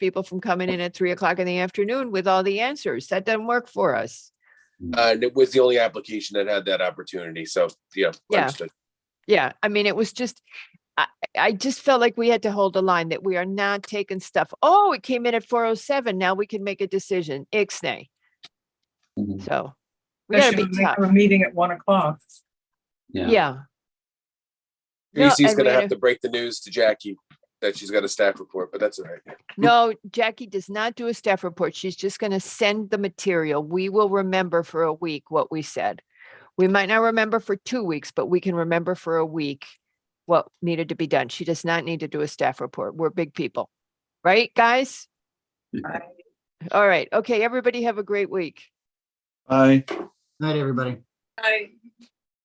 people from coming in at three o'clock in the afternoon with all the answers. That doesn't work for us. Uh, and it was the only application that had that opportunity. So, yeah. Yeah. understood. Yeah, I mean, it was just, I, I just felt like we had to hold the line that we are not taking stuff. Oh, it came in at four oh seven. Now we can make a decision. Ixnay. Mhm. So we They gotta should be have tough. made a meeting at one o'clock. Yeah. No, Reese's and gonna we have had to break the news to Jackie that she's got a staff report, but that's all right. No, Jackie does not do a staff report. She's just going to send the material. We will remember for a week what we said. We might not remember for two weeks, but we can remember for a week what needed to be done. She does not need to do a staff report. We're big people, right, guys? I- All right. Okay. Everybody have a great week. Bye. Night, everybody. I.